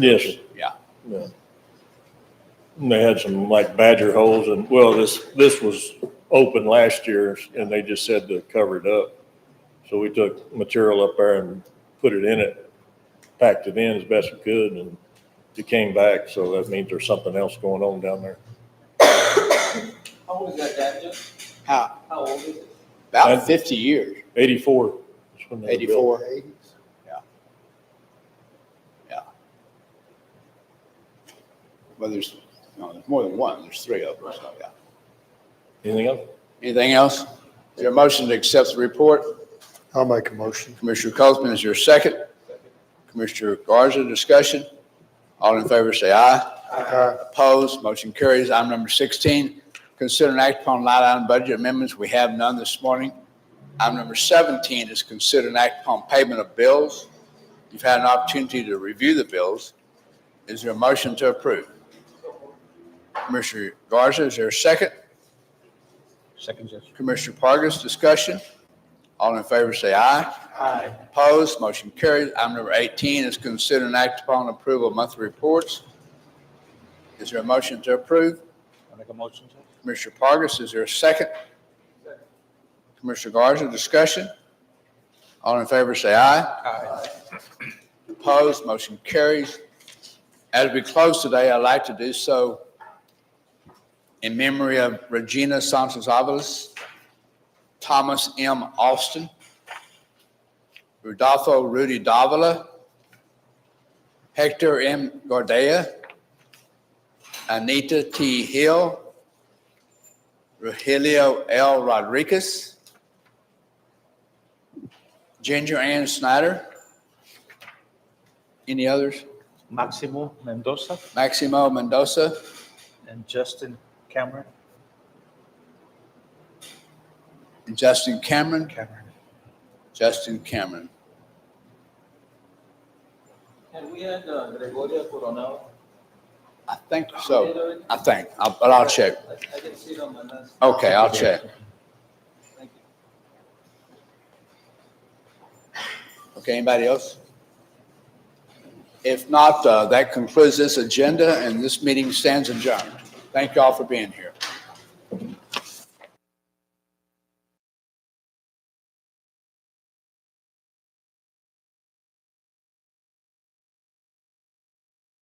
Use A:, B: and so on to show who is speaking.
A: Yes.
B: Yeah.
A: Yeah. And they had some like badger holes and, well, this, this was open last year and they just said to cover it up. So we took material up there and put it in it, packed it in as best we could and it came back. So that means there's something else going on down there.
C: How old is that gadget?
B: How,
C: How old is it?
B: about fifty years,
A: Eighty-four. is when they were built.
B: eighty-four. Yeah. Yeah. Well, there's, no, there's more than one, there's three of them, so, yeah.
A: Anything else?
B: Anything else? Is there a motion to accept the report?
D: I'll make a motion.
B: Commissioner Cosman is your second. Commissioner Garza, discussion. All in favor, say aye.
D: Aye.
B: Opposed, motion carries. Item number 16, consider an act upon line item budget amendments. We have none this morning. Item number 17 is consider an act upon payment of bills. You've had an opportunity to review the bills. Is there a motion to approve? Commissioner Garza, is there a second?
E: Second, yes.
B: Commissioner Pargas, discussion. All in favor, say aye.
C: Aye.
B: Opposed, motion carries. Item number 18 is consider and act upon approval of monthly reports. Is there a motion to approve?
E: I make a motion to.
B: Commissioner Pargas, is there a second? Commissioner Garza, discussion? All in favor, say aye.
E: Aye.
B: Opposed, motion carries. As we close today, I'd like to do so in memory of Regina Sanchez Avalos, Thomas M. Austin, Rudolfo Rudy Davila, Hector M. Gordea, Anita T. Hill, Rogelio L. Rodriguez, Ginger Ann Snyder. Any others?
E: Maximo Mendoza
B: Maximo Mendoza,
E: and Justin Cameron.
B: Justin Cameron,
E: Cameron.
B: Justin Cameron.
C: And we had uh, Gregoria Coronado.
B: I think
C: Did
B: so.
C: it?
B: I think, I'll- but I'll check.
C: I I didn't see it on my list.
B: Okay, I'll check.
C: Thank you.
B: Okay, anybody else? If not, uh, that concludes this agenda and this meeting stands adjourned. Thank you all for being here.